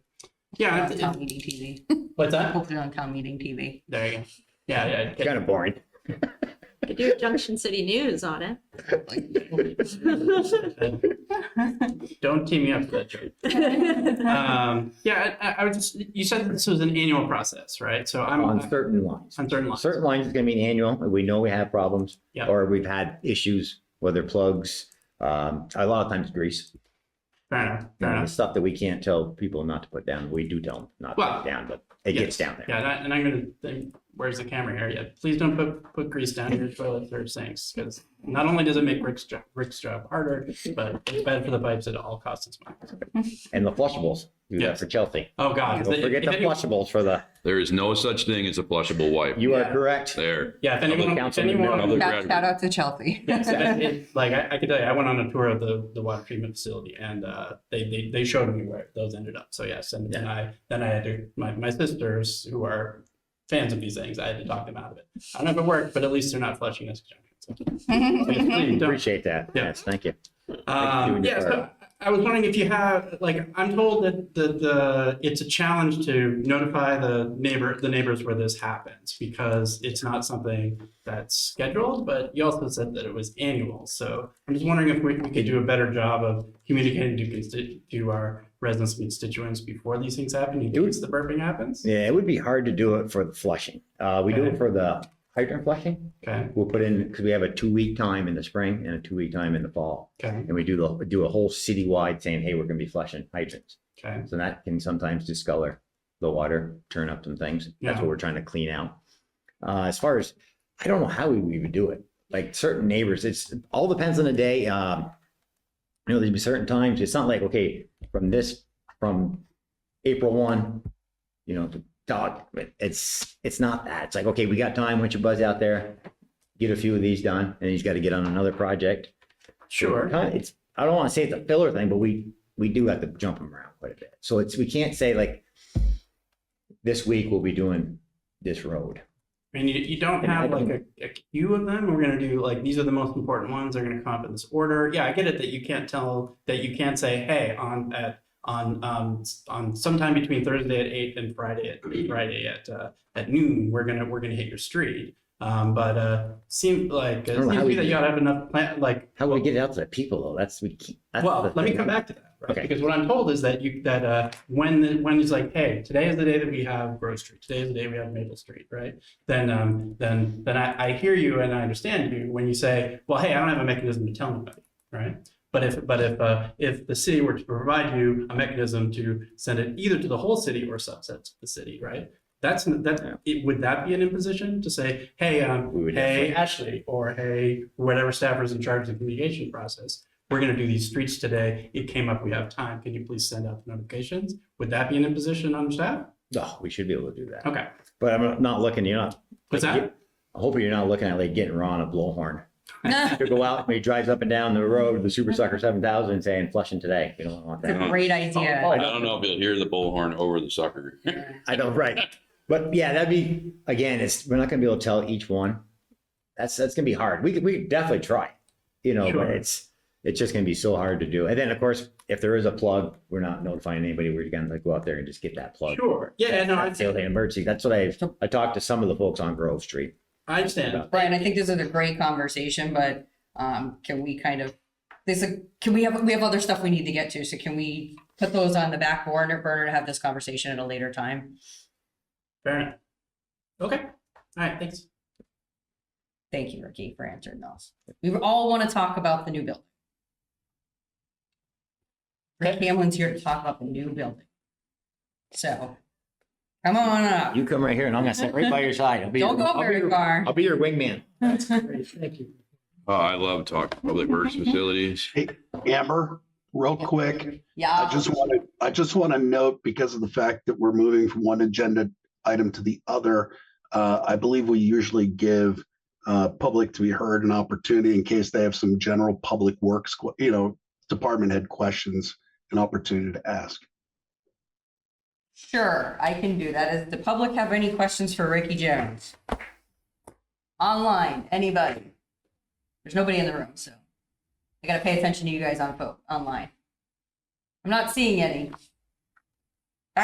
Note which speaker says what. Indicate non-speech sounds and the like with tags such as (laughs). Speaker 1: Yeah,
Speaker 2: Put it
Speaker 1: it-
Speaker 2: on meeting TV.
Speaker 1: what's that?
Speaker 2: Put it on town meeting TV.
Speaker 1: There you go. Yeah, yeah. it-
Speaker 3: Kind of boring.
Speaker 4: Could do Junction City News on it.
Speaker 1: (laughs) Don't team me up for that joke. Um, yeah, I, I- I was just, you said that this was an annual process, right? So I'm uh,
Speaker 3: On
Speaker 1: on
Speaker 3: certain lines.
Speaker 1: certain lines.
Speaker 3: Certain lines is gonna be an annual, and we know we have problems.
Speaker 1: Yeah.
Speaker 3: Or we've had issues, whether plugs, um, a lot of times grease.
Speaker 1: Fair enough,
Speaker 3: You
Speaker 1: fair
Speaker 3: know, the
Speaker 1: enough.
Speaker 3: Stuff that we can't tell people not to put down. We do tell them not to put
Speaker 1: Well,
Speaker 3: it down, but it gets
Speaker 1: yes.
Speaker 3: down there.
Speaker 1: Yeah, and I- and I'm gonna, then- where's the camera here? Yeah, please don't put, put grease down your toilets or sinks, because not only does it make Rick's job, Rick's job harder, but it's bad for the pipes at all costs as well.
Speaker 3: And the flushables, do that
Speaker 1: Yes.
Speaker 3: for Chelsea.
Speaker 1: Oh, God.
Speaker 3: Don't
Speaker 1: if they-
Speaker 3: forget
Speaker 1: if
Speaker 3: the
Speaker 1: any-
Speaker 3: flushables for the,
Speaker 5: There is no such thing as a flushable wipe.
Speaker 3: you are
Speaker 1: Yeah.
Speaker 3: correct.
Speaker 5: There.
Speaker 1: Yeah, if
Speaker 3: Public
Speaker 1: anyone, if
Speaker 3: council would know.
Speaker 1: anyone
Speaker 5: Public
Speaker 2: Shout shout out to (laughs) Chelsea.
Speaker 1: Yes, it, it, (laughs) like I, I could tell you, I went on a tour of the, the water treatment facility and uh, they, they they showed me where those ended up. So yes, and then I then I had to my, my sisters who are fans of these things, I had to talk them out of it. I don't know if it worked, but at least they're not flushing this junction. So, please Mm-hmm. don't.
Speaker 3: Appreciate that.
Speaker 1: Yeah.
Speaker 3: Yes, thank you. you
Speaker 1: Um,
Speaker 3: and your
Speaker 1: yeah, so
Speaker 3: part.
Speaker 1: I was wondering if you have, like, I'm told that the, the, it's a challenge to notify the neighbor, the neighbors where this happens because it's not something that's scheduled, but you also said that it was annual. So I'm just wondering if we, we could do a better job of communicating to consti- to our residents and constituents before these things happen, in
Speaker 3: It would-
Speaker 1: case the burping happens.
Speaker 3: Yeah, it would be hard to do it for the flushing. Uh, we do it
Speaker 1: Okay.
Speaker 3: for the hydrant flushing.
Speaker 1: Okay,
Speaker 3: We'll put in, because we have a two-week time in the spring and a two-week time in the fall.
Speaker 1: okay,
Speaker 3: And we do the, do a whole citywide saying, hey, we're gonna be flushing hydrants.
Speaker 1: okay.
Speaker 3: So that can sometimes discolor the water, turn up some things. That's
Speaker 1: Yeah.
Speaker 3: what we're trying to clean out. Uh, as far as, I don't know how we would even do it. Like certain neighbors, it's all depends on the day. Um, you know, there'd be certain times. It's not like, okay, from this, from April one, you know, to dog, it's, it's not that. It's like, okay, we got time. Why don't you buzz out there? Get a few of these done and he's got to get on another project.
Speaker 1: Sure.
Speaker 3: Kind of- It's, I don't want to say it's a filler thing, but we, we do have to jump them around quite a bit. So it's, we can't say like, this week we'll be doing this road.
Speaker 1: And you, you don't
Speaker 3: And I
Speaker 1: have like a, a queue of them. We're gonna do like, these are the most important ones. They're gonna come up in this order. Yeah, I get it that you can't tell, that you can't say, hey, on, at, on, um, s- on sometime between Thursday at eight and Friday
Speaker 3: (clears throat)
Speaker 1: at, Friday at, uh, at noon, we're gonna, we're gonna hit your street. Um, but, uh, seemed like,
Speaker 3: I
Speaker 1: it
Speaker 3: don't know
Speaker 1: seems
Speaker 3: how
Speaker 1: to
Speaker 3: we
Speaker 1: me that
Speaker 3: do
Speaker 1: you ought to have enough plan, like,
Speaker 3: How do we get it out to the people though? That's, we can't. that's
Speaker 1: well,
Speaker 3: the
Speaker 1: let me
Speaker 3: thing.
Speaker 1: come back to that, right?
Speaker 3: Okay.
Speaker 1: Because what I'm told is that you, that, uh, when, the- when it's like, hey, today is the day that we have Grove Street, today is the day we have Maple Street, right? Then, um, then, then I, I hear you and I understand you when you say, well, hey, I don't have a mechanism to tell anybody, right? But if, but if, uh, if the city were to provide you a mechanism to send it either to the whole city or subsets of the city, right? That's,
Speaker 3: Yeah.
Speaker 1: that, it, would that be an imposition to say, hey, um,
Speaker 3: We would
Speaker 1: hey, Ashley, or hey, whatever staffer's in charge of the communication process, we're gonna do these streets today, it came up, we have time, can you please send out the notifications? Would that be an imposition on staff?
Speaker 3: No, Oh, we should be able to do that.
Speaker 1: Okay,
Speaker 3: But I'm not looking, you're not,
Speaker 1: what's that?
Speaker 3: I hope you're not looking at like getting Ron a blowhorn.
Speaker 2: It's
Speaker 3: To go out and he drives up and down the road, the Super Sucker seven thousand saying flushing today. You don't want
Speaker 2: a
Speaker 3: that. Oh,
Speaker 2: great idea.
Speaker 5: I don't know if you'll hear the bullhorn over the sucker.
Speaker 3: I don't, right. But yeah, that'd be, again, it's, we're not gonna be able to tell each one. That's, that's gonna be hard. We could, we could definitely try, you know,
Speaker 1: Sure.
Speaker 3: but it's, it's just gonna be so hard to do. And then, of course, if there is a plug, we're not notifying anybody. We're gonna like go out there and just get that plug.
Speaker 1: Sure, yeah, no, I
Speaker 3: That's the only emergency. That's what I, I talked to some of the folks on Grove Street.
Speaker 1: I understand.
Speaker 2: Brian, I think this is a great conversation, but um, can we kind of, this, is- can we have, we have other stuff we need to get to, so can we put those on the back burner, burner to have this conversation at a later time?
Speaker 1: Fair enough. Okay, all right, thanks.
Speaker 2: Thank you, Ricky, for answering those. We all want to talk about the new building. Rick Hamlin's here to talk about the new building. So, come on up.
Speaker 3: You come right here and I'm gonna sit right by your side. I'll be
Speaker 2: Don't
Speaker 3: your-
Speaker 2: go
Speaker 3: I'll be
Speaker 2: very
Speaker 3: your-
Speaker 2: far.
Speaker 3: I'll be your wingman.
Speaker 1: Great, Thank you.
Speaker 5: Oh, I love talking public works facilities.
Speaker 6: Amber,
Speaker 2: (laughs)
Speaker 6: real quick, I
Speaker 2: Yeah,
Speaker 6: just want to, I just want to note because of the fact that we're moving from one agenda item to the other, uh, I believe we usually give uh, public to be heard an opportunity in case they have some general public works, que- you know, department head questions, an opportunity to ask.
Speaker 2: sure, I can do that. Does the public have any questions for Ricky Jones? Online, anybody? There's nobody in the room, so I gotta pay attention to you guys on phone, online. I'm not seeing any.